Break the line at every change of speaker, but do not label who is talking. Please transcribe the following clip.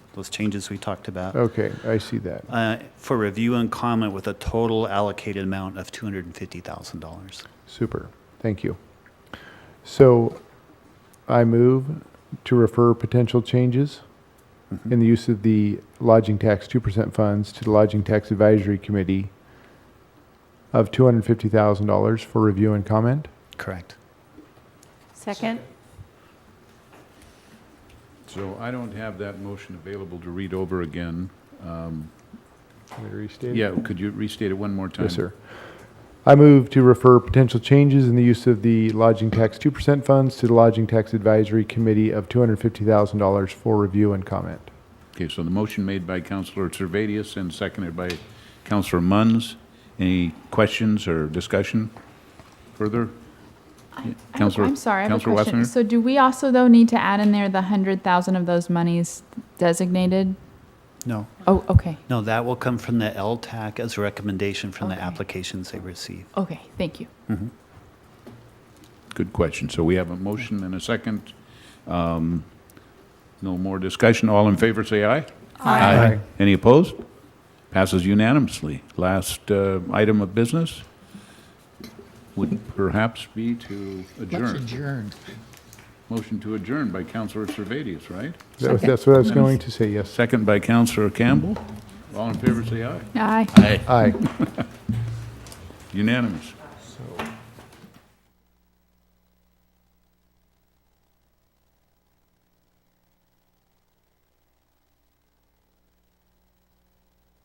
those changes we talked about,
Okay, I see that.
uh, for review and comment with a total allocated amount of $250,000.
Super. Thank you. So I move to refer potential changes
Mm-hmm.
in the use of the lodging tax 2% funds to the Lodging Tax Advisory Committee of $250,000 for review and comment.
Correct.
Second?
So I don't have that motion available to read over again.
Can we restate it?
Yeah, could you restate it one more time?
Yes, sir. I move to refer potential changes in the use of the lodging tax 2% funds to the Lodging Tax Advisory Committee of $250,000 for review and comment.
Okay, so the motion made by Counselor Servadius and seconded by Counselor Munns. Any questions or discussion further?
I have a-
Counselor-
I'm sorry, I have a
Counselor
question.
Wassenaar?
So do we also, though, need to add in there the 100,000 of those monies designated?
No,
Oh, okay,
no, that will come from the LTAC as a recommendation from the
Okay.
applications they receive.
okay, thank you.
Good question. So we have a motion and a second. Um, No more discussion. All in favor, say aye.
Aye.
Any opposed? Passes unanimously. Last uh, item of business would perhaps be to
Let's
adjourn.
adjourn.
Motion to adjourn by Counselor Servadius, right?
That was- That's what I was going to say, yes.
Second by Counselor Campbell. All in favor, say aye.
Aye.
Aye.
Aye.
Unanimous.